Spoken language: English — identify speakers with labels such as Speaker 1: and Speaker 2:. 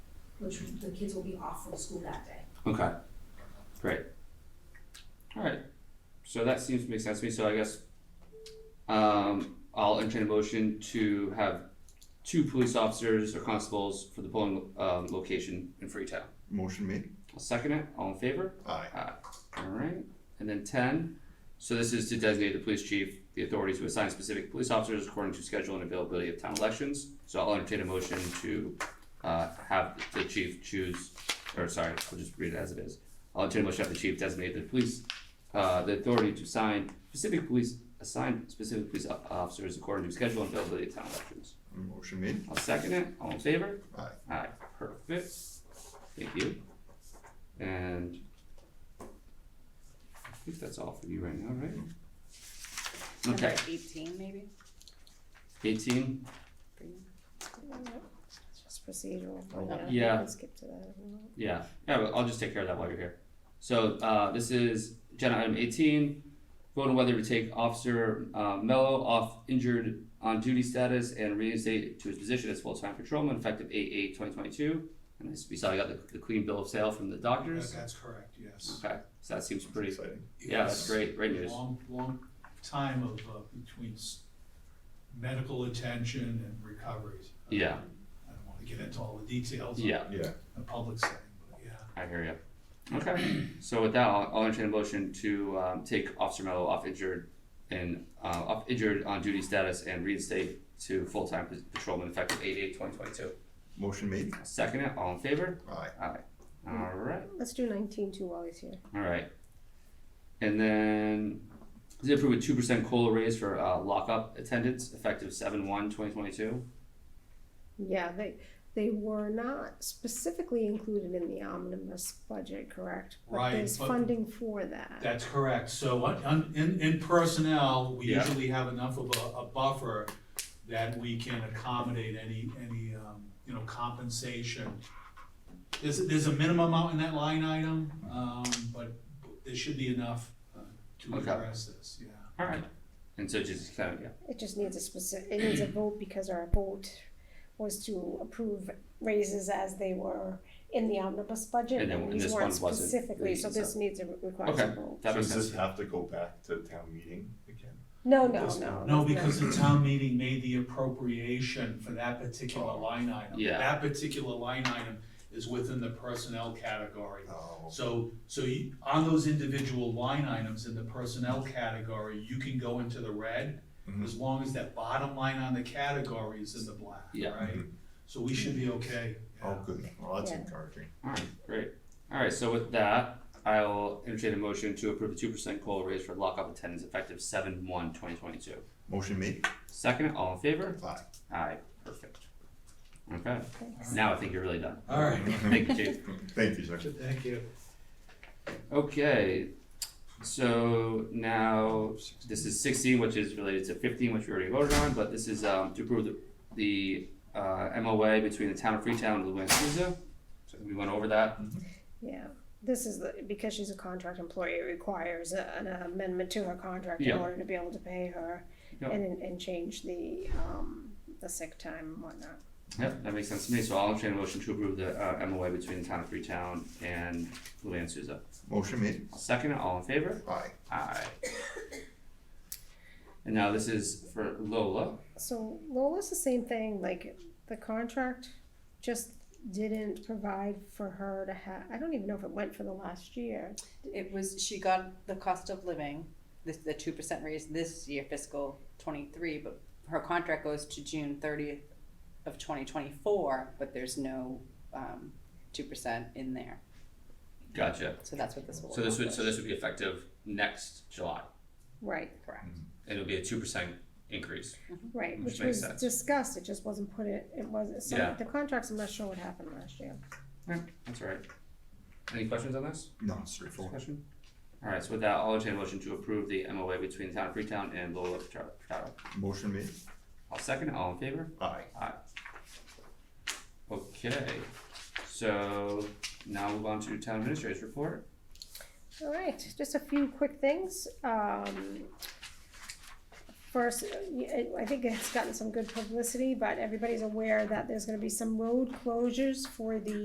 Speaker 1: which the kids will be off from school that day.
Speaker 2: Okay. Great. All right. So that seems to make sense to me. So I guess um, I'll entertain a motion to have two police officers or constables for the polling um, location in Freetown.
Speaker 3: Motion made.
Speaker 2: I'll second it. All in favor?
Speaker 3: Aye.
Speaker 2: All right. And then 10. So this is to designate the police chief the authority to assign specific police officers according to schedule and availability of town elections. So I'll entertain a motion to uh, have the chief choose, or sorry, I'll just read it as it is. I'll entertain a motion to have the chief designate the police, uh, the authority to assign specific police, assign specific police o- officers according to schedule and availability of town elections.
Speaker 3: Motion made.
Speaker 2: I'll second it. All in favor?
Speaker 3: Aye.
Speaker 2: Aye, perfect. Thank you. And I think that's all for you right now, right? Okay,
Speaker 4: Number eighteen, maybe,
Speaker 2: eighteen,
Speaker 4: for you. It's just procedural.
Speaker 3: Oh,
Speaker 4: whatever.
Speaker 2: yeah.
Speaker 4: We'll Skip to that. if we want.
Speaker 2: yeah, yeah, but I'll just take care of that while you're here. So, uh, this is agenda item eighteen, vote on whether to take Officer, uh, Mello off injured on duty status and reinstate to his position as full-time patrolman effective eight eight twenty twenty-two. And as we saw, I got the, the clean bill of sale from the doctors.
Speaker 5: That's correct, yes.
Speaker 2: Okay, so that seems pretty,
Speaker 3: Exciting.
Speaker 2: yeah, that's
Speaker 5: Yes.
Speaker 2: great, great news.
Speaker 5: Long, long time of, uh, between s- medical attention and recoveries.
Speaker 2: Yeah.
Speaker 5: I don't wanna get into all the details. of
Speaker 2: Yeah,
Speaker 3: Yeah.
Speaker 5: The public setting, but yeah.
Speaker 2: I hear you. Okay, so with that, I'll, I'll entertain a motion to, um, take Officer Mello off injured and, uh, off injured on duty status and reinstate to full-time pa- patrolman effective eight eight twenty twenty-two.
Speaker 3: Motion made.
Speaker 2: Second it, all in favor?
Speaker 3: Aye.
Speaker 2: Alright,
Speaker 4: Let's do nineteen too while he's here.
Speaker 2: alright. And then, is it approved a two percent COLA raise for, uh, lockup attendance effective seven one twenty twenty-two?
Speaker 4: Yeah, they, they were not specifically included in the omnibus budget, correct?
Speaker 5: Right,
Speaker 4: But there's
Speaker 5: but-
Speaker 4: funding for that.
Speaker 5: That's correct, so on- on, in, in personnel, we
Speaker 2: Yeah.
Speaker 5: usually have enough of a, a buffer that we can accommodate any, any, um, you know, compensation. There's, there's a minimum amount in that line item, um, but there should be enough uh, to
Speaker 2: Okay.
Speaker 5: address this, yeah.
Speaker 2: Alright, and so just kind of, yeah,
Speaker 4: It just needs a specific, it needs a vote because our vote was to approve raises as they were in the omnibus budget.
Speaker 2: And then- and
Speaker 4: these
Speaker 2: this
Speaker 4: weren't
Speaker 2: one wasn't
Speaker 4: Specifically, so
Speaker 2: raised, so-
Speaker 4: this needs a requires
Speaker 2: Okay.
Speaker 4: a vote.
Speaker 2: that makes
Speaker 6: Does
Speaker 2: sense.
Speaker 6: this have to go back to town meeting again?
Speaker 4: No, no,
Speaker 5: This-
Speaker 4: no.
Speaker 5: No, because the town meeting made the appropriation for that particular line item.
Speaker 2: Oh. Yeah.
Speaker 5: That particular line item is within the personnel category.
Speaker 6: Oh.
Speaker 5: So, so you, on those individual line items in the personnel category, you can go into the red
Speaker 2: Mm-hmm.
Speaker 6: Mhm.
Speaker 5: as long as that bottom line on the category is in the black,
Speaker 2: Yeah. Mm-hmm.
Speaker 5: right? So we should be okay.
Speaker 6: Oh,
Speaker 5: yeah.
Speaker 6: good. Well, that's
Speaker 4: Yeah.
Speaker 6: encouraging.
Speaker 2: Alright, great. Alright, so with that, I'll entertain a motion to approve the two percent COLA raise for lockup attendance effective seven one twenty twenty-two.
Speaker 3: Motion made.
Speaker 2: Second, all in favor?
Speaker 3: Aye.
Speaker 2: Aye, perfect. Okay,
Speaker 4: Thanks.
Speaker 2: now I think you're really done.
Speaker 5: All right,
Speaker 2: Thank you, Chief.
Speaker 3: Thank you, sir.
Speaker 5: thank you.
Speaker 2: Okay, so now this is sixteen, which is related to fifteen, which we already voted on, but this is um to approve the the uh MOA between the town of Freetown and Luann Souza. So we went over that.
Speaker 4: Yeah, this is the, because she's a contract employee, it requires a- an amendment to her contract in
Speaker 2: Yeah.
Speaker 4: order to be able to pay her
Speaker 2: Yeah.
Speaker 4: and, and change the, um, the sick time and whatnot.
Speaker 2: Yep, that makes sense to me, so I'll entertain a motion to approve the uh MOA between the town of Freetown and Luann Souza.
Speaker 3: Motion made.
Speaker 2: I'll second it, all in favor?
Speaker 3: Aye.
Speaker 2: Aye. And now this is for Lola,
Speaker 4: So Lola's the same thing, like the contract just didn't provide for her to have, I don't even know if it went for the last year.
Speaker 7: It was, she got the cost of living, this, the two percent raise this year fiscal twenty-three, but her contract goes to June thirtieth of twenty twenty-four, but there's no, um, two percent in there,
Speaker 2: gotcha,
Speaker 7: so that's what this will.
Speaker 2: so this would, so
Speaker 7: accomplish.
Speaker 2: this would be effective next July,
Speaker 4: Right,
Speaker 7: Correct.
Speaker 2: and it'll be a two percent increase.
Speaker 4: right,
Speaker 2: Which
Speaker 4: which
Speaker 2: makes
Speaker 4: was
Speaker 2: sense.
Speaker 4: discussed, it just wasn't put in, it wasn't, so
Speaker 2: Yeah.
Speaker 4: the contracts, I'm not sure what happened last year.
Speaker 2: That's all right. Any questions on this
Speaker 3: No, it's straightforward.
Speaker 2: discussion? All right, so with that, I'll entertain a motion to approve the MOA between the town of Freetown and Lola Furtado. Furtado.
Speaker 3: Motion made.
Speaker 2: I'll second it, all in favor?
Speaker 3: Aye.
Speaker 2: Okay, so now move on to town administrator's report.
Speaker 4: All right, just a few quick things. Um, First, y- I think it's gotten some good publicity, but everybody's aware that there's gonna be some road closures for the